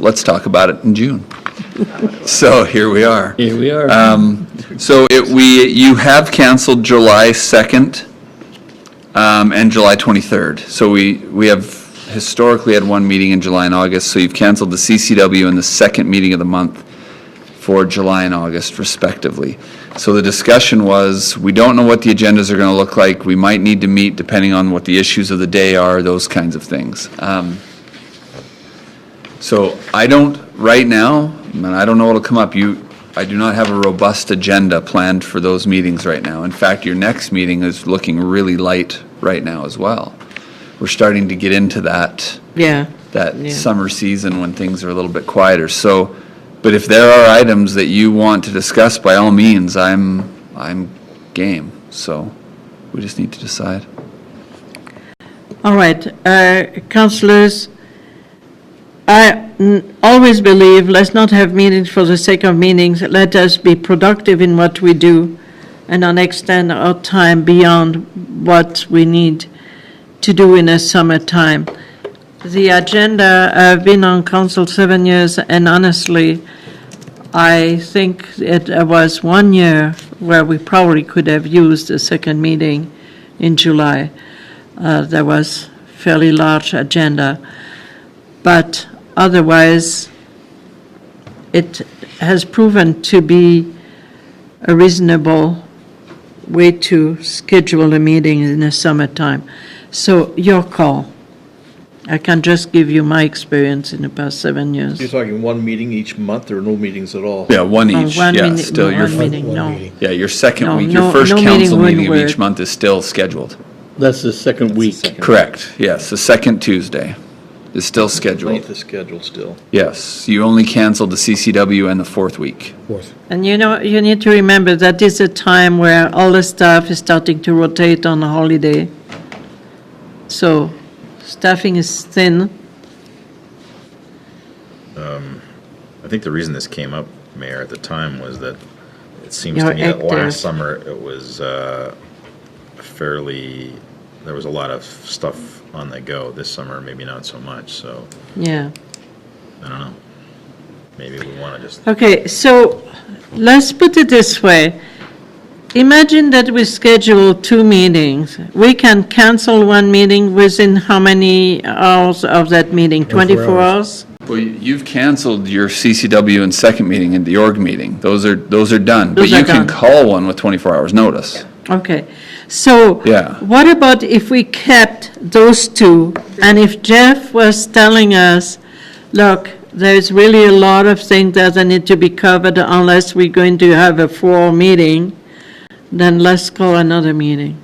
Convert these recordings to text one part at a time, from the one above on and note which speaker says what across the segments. Speaker 1: let's talk about it in June. So here we are.
Speaker 2: Here we are.
Speaker 1: Um, So it, we, you have canceled July 2nd um, and July 23rd. So we, we have historically had one meeting in July and August, so you've canceled the CCW and the second meeting of the month for July and August respectively. So the discussion was, we don't know what the agendas are going to look like, we might need to meet depending on what the issues of the day are, those kinds of things. Um, so I don't, right now, and I don't know what'll come up, you, I do not have a robust agenda planned for those meetings right now. In fact, your next meeting is looking really light right now as well. We're starting to get into that,
Speaker 3: Yeah.
Speaker 1: that
Speaker 3: Yeah.
Speaker 1: summer season when things are a little bit quieter. So, but if there are items that you want to discuss, by all means, I'm, I'm game. So we just need to decide.
Speaker 3: All right, uh, councillors, I mm, always believe, let's not have meetings for the sake of meetings. Let us be productive in what we do and not extend our time beyond what we need to do in a summertime. The agenda, I've been on council seven years, and honestly, I think it was one year where we probably could have used a second meeting in July. Uh, There was fairly large agenda. But otherwise, it has proven to be a reasonable way to schedule a meeting in the summertime. So your call. I can just give you my experience in the past seven years.
Speaker 4: You're talking one meeting each month or no meetings at all?
Speaker 1: Yeah, one
Speaker 3: Oh,
Speaker 1: each,
Speaker 3: one
Speaker 1: yeah,
Speaker 3: meeting-
Speaker 1: still your,
Speaker 3: one
Speaker 1: fir-
Speaker 3: meeting, no.
Speaker 1: yeah, your second
Speaker 3: No,
Speaker 1: week, your
Speaker 3: no-
Speaker 1: first
Speaker 3: no meeting
Speaker 1: council
Speaker 3: would
Speaker 1: meeting of each
Speaker 3: work.
Speaker 1: month is still scheduled.
Speaker 2: That's the second week.
Speaker 1: Correct, yes, the second Tuesday is still
Speaker 4: Ninth
Speaker 1: scheduled.
Speaker 4: is scheduled still.
Speaker 1: Yes, you only canceled the CCW and the fourth week.
Speaker 3: And you know, you need to remember that is a time where all the staff is starting to rotate on a holiday. So staffing is thin.
Speaker 5: I think the reason this came up, Mayor, at the time was that it seems
Speaker 3: Your
Speaker 5: to me that
Speaker 3: actor.
Speaker 5: last summer it was uh, fairly, there was a lot of stuff on the go. This summer, maybe not so much, so
Speaker 3: Yeah.
Speaker 5: I don't know. Maybe we want to just,
Speaker 3: Okay, so let's put it this way. Imagine that we schedule two meetings. We can cancel one meeting within how many hours of that meeting? 24 hours?
Speaker 1: Well, you- you've canceled your CCW and second meeting and the org meeting. Those are, those are done. But
Speaker 3: Those are
Speaker 1: you can
Speaker 3: done.
Speaker 1: call one with 24 hours' notice.
Speaker 3: Okay, so.
Speaker 1: Yeah.
Speaker 3: What about if we kept those two, and if Jeff was telling us, look, there's really a lot of things that need to be covered unless we're going to have a full meeting, then let's call another meeting.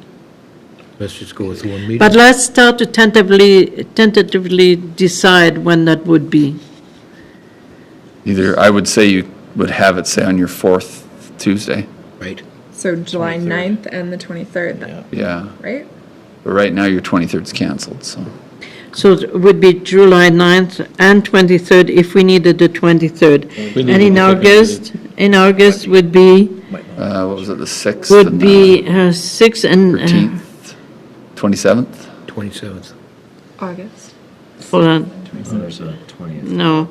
Speaker 6: Let's just go with one meeting.
Speaker 3: But let's start to tentatively, tentatively decide when that would be.
Speaker 1: Either, I would say you would have it, say, on your fourth Tuesday,
Speaker 6: Right.
Speaker 7: So July 9th and the 23rd, then,
Speaker 1: yeah.
Speaker 7: right?
Speaker 1: But right now, your 23rd's canceled, so.
Speaker 3: So it would be July 9th and 23rd if we needed the 23rd.
Speaker 2: We need
Speaker 3: And in
Speaker 2: to look at
Speaker 3: August, in August would be?
Speaker 1: Uh, What was it, the 6th?
Speaker 3: would
Speaker 1: and the
Speaker 3: be uh, six and, uh,
Speaker 1: 13th, 27th?
Speaker 6: 27th.
Speaker 7: August.
Speaker 3: hold on, no.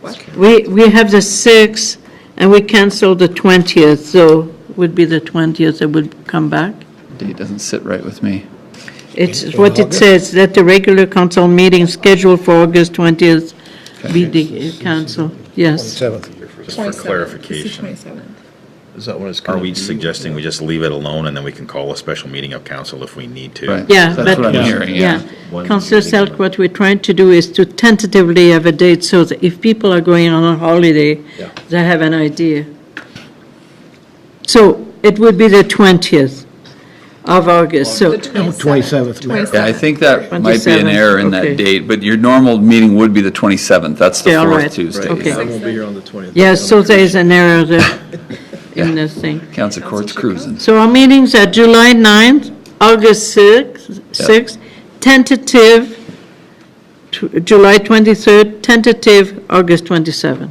Speaker 7: What?
Speaker 3: We, we have the six, and we cancel the 20th, so would be the 20th that would come back.
Speaker 1: Date doesn't sit right with me.
Speaker 3: It's what it says, that the regular council meeting scheduled for August 20th be the council, yes.
Speaker 5: just for
Speaker 7: 27th.
Speaker 5: clarification,
Speaker 7: It's the 27th.
Speaker 4: Is that when it's going
Speaker 5: are
Speaker 4: to be?
Speaker 5: we suggesting we just leave it alone and then we can call a special meeting of council if we need to?
Speaker 1: Right.
Speaker 3: Yeah,
Speaker 1: That's
Speaker 3: but-
Speaker 1: what I'm hearing, yeah.
Speaker 5: One
Speaker 3: Councillor
Speaker 5: meeting a
Speaker 3: Selk, what we're trying to do is to tentatively have a date, so that if people are going on a holiday, they have an idea. So it would be the 20th of August, so,
Speaker 7: The
Speaker 6: No, 27th, Mayor.
Speaker 1: Yeah, I think that might be an
Speaker 3: 27th,
Speaker 1: error in
Speaker 3: okay.
Speaker 1: that date, but your normal meeting would be the 27th. That's the
Speaker 3: Yeah, all
Speaker 1: fourth
Speaker 3: right,
Speaker 1: Tuesday.
Speaker 3: okay.
Speaker 4: I won't be here on the 20th.
Speaker 3: yeah, so there is an error there in the thing.
Speaker 1: Council Court's cruising.
Speaker 3: So our meetings are July 9th, August 6th, 6th, tentative, tw- July 23rd, tentative, August 27th.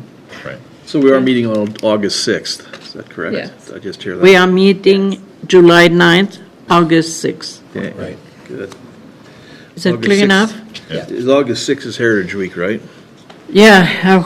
Speaker 4: So we are meeting on August 6th, is that correct?
Speaker 7: Yes.
Speaker 4: Did I just hear that.
Speaker 3: We are meeting July 9th, August 6th.
Speaker 4: Okay, good.
Speaker 3: Is that
Speaker 4: August
Speaker 3: clear
Speaker 4: 6th.
Speaker 3: enough?
Speaker 4: Is August 6th is Heritage Week, right?
Speaker 3: Yeah, I